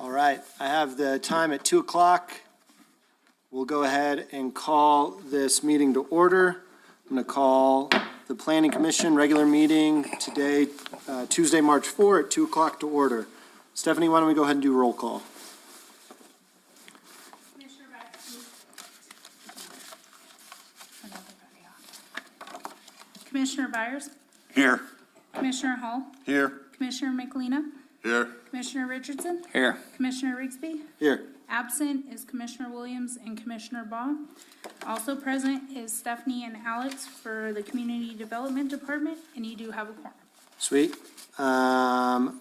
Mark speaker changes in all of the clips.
Speaker 1: All right, I have the time at 2 o'clock. We'll go ahead and call this meeting to order. I'm going to call the Planning Commission regular meeting today, uh, Tuesday, March 4 at 2 o'clock to order. Stephanie, why don't we go ahead and do roll call?
Speaker 2: Commissioner Bradsky. Commissioner Byers,
Speaker 3: Here.
Speaker 2: Commissioner Hall,
Speaker 3: Here.
Speaker 2: Commissioner McLean,
Speaker 3: Here.
Speaker 2: Commissioner Richardson,
Speaker 3: Here.
Speaker 2: Commissioner Rigsby.
Speaker 1: Here,
Speaker 2: Absent is Commissioner Williams and Commissioner Baugh. Also present is Stephanie and Alex for the Community Development Department, and you do have a quorum.
Speaker 1: sweet. Um,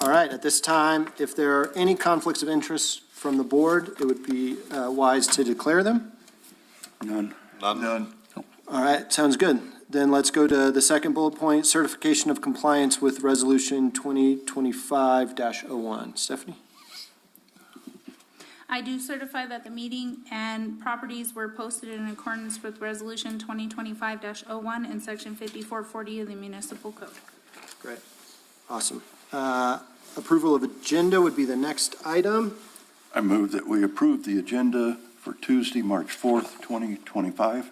Speaker 1: All right, at this time, if there are any conflicts of interest from the board, it would be uh, wise to declare them.
Speaker 3: None. None.
Speaker 1: All right, sounds good. Then let's go to the second bullet point, certification of compliance with Resolution 2025-01. Stephanie?
Speaker 2: I do certify that the meeting and properties were posted in accordance with Resolution 2025-01 and Section 5440 of the Municipal Code.
Speaker 1: Great. Awesome. Uh, Approval of agenda would be the next item.
Speaker 3: I move that we approve the agenda for Tuesday, March 4th, 2025.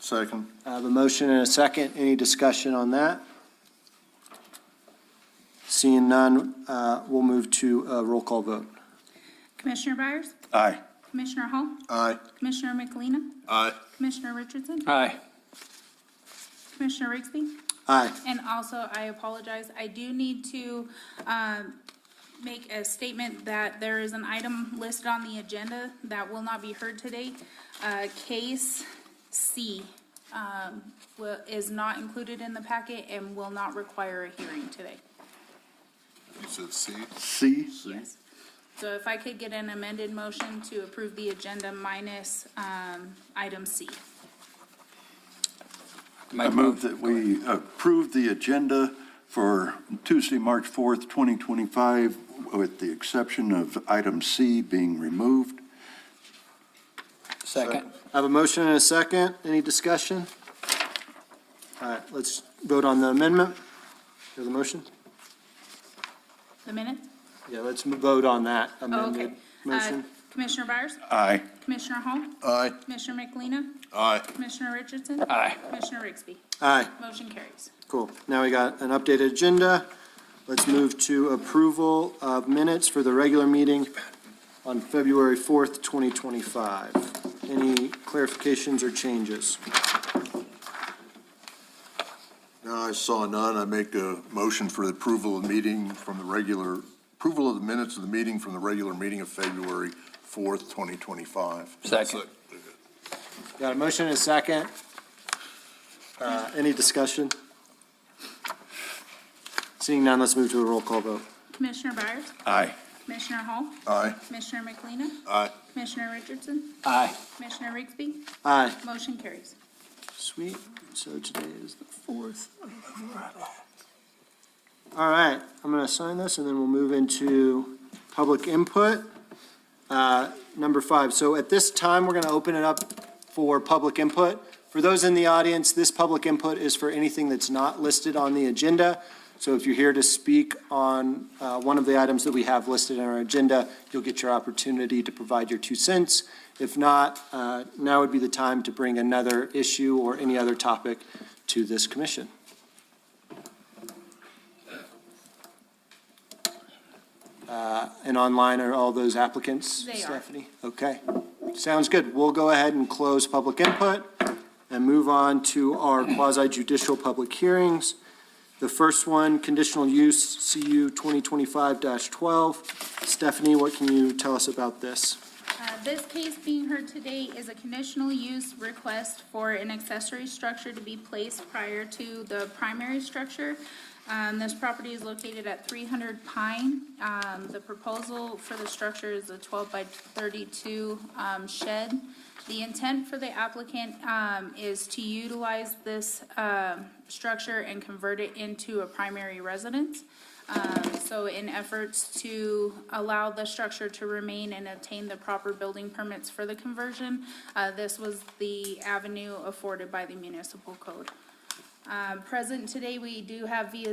Speaker 3: Second.
Speaker 1: I have a motion and a second. Any discussion on that? Seeing none, uh, we'll move to a roll call vote.
Speaker 2: Commissioner Byers?
Speaker 3: Aye.
Speaker 2: Commissioner Hall?
Speaker 3: Aye.
Speaker 2: Commissioner McElina?
Speaker 3: Aye.
Speaker 2: Commissioner Richardson?
Speaker 4: Aye.
Speaker 2: Commissioner Rigsby?
Speaker 1: Aye.
Speaker 2: And also, I apologize, I do need to um, make a statement that there is an item listed on the agenda that will not be heard today. Uh, Case C um, will- is not included in the packet and will not require a hearing today.
Speaker 5: You said C?
Speaker 3: C.
Speaker 2: Yes. So if I could get an amended motion to approve the agenda minus um, item C.
Speaker 3: I move that we approve the agenda for Tuesday, March 4th, 2025, with the exception of item C being removed.
Speaker 4: Second.
Speaker 1: I have a motion and a second. Any discussion? All right, let's vote on the amendment. Hear the motion?
Speaker 2: The minutes?
Speaker 1: Yeah, let's vote on that
Speaker 2: Oh, okay.
Speaker 1: amended
Speaker 2: Uh,
Speaker 1: motion.
Speaker 2: Commissioner Byers?
Speaker 3: Aye.
Speaker 2: Commissioner Hall?
Speaker 3: Aye.
Speaker 2: Commissioner McElina?
Speaker 5: Aye.
Speaker 2: Commissioner Richardson?
Speaker 4: Aye.
Speaker 2: Commissioner Rigsby?
Speaker 1: Aye,
Speaker 2: Motion carries.
Speaker 1: cool. Now we got an updated agenda. Let's move to approval of minutes for the regular meeting on February 4th, 2025. Any clarifications or changes?
Speaker 5: No, I saw none. I make a motion for the approval of the meeting from the regular, approval of the minutes of the meeting from the regular meeting of February 4th, 2025.
Speaker 4: Second.
Speaker 1: Got a motion and a second. Uh, Any discussion? Seeing none, let's move to a roll call vote.
Speaker 2: Commissioner Byers?
Speaker 3: Aye.
Speaker 2: Commissioner Hall?
Speaker 5: Aye.
Speaker 2: Commissioner McElina?
Speaker 5: Aye.
Speaker 2: Commissioner Richardson?
Speaker 4: Aye.
Speaker 2: Commissioner Rigsby?
Speaker 1: Aye.
Speaker 2: Motion carries.
Speaker 1: Sweet, so today is the fourth. All right, I'm gonna sign this and then we'll move into public input. Uh, Number five, so at this time, we're gonna open it up for public input. For those in the audience, this public input is for anything that's not listed on the agenda. So if you're here to speak on uh, one of the items that we have listed on our agenda, you'll get your opportunity to provide your two cents. If not, uh, now would be the time to bring another issue or any other topic to this commission. Uh, And online are all those applicants?
Speaker 2: They are.
Speaker 1: Stephanie? Okay, sounds good. We'll go ahead and close public input and move on to our quasi judicial public hearings. The first one, conditional use CU 2025-12. Stephanie, what can you tell us about this?
Speaker 2: Uh, This case being heard today is a conditional use request for an accessory structure to be placed prior to the primary structure. Um, This property is located at 300 Pine. Um, The proposal for the structure is a 12 by 32 um, shed. The intent for the applicant um, is to utilize this um, structure and convert it into a primary residence. Um, So in efforts to allow the structure to remain and obtain the proper building permits for the conversion, uh, this was the avenue afforded by the municipal code. Uh, Present today, Um, we do have via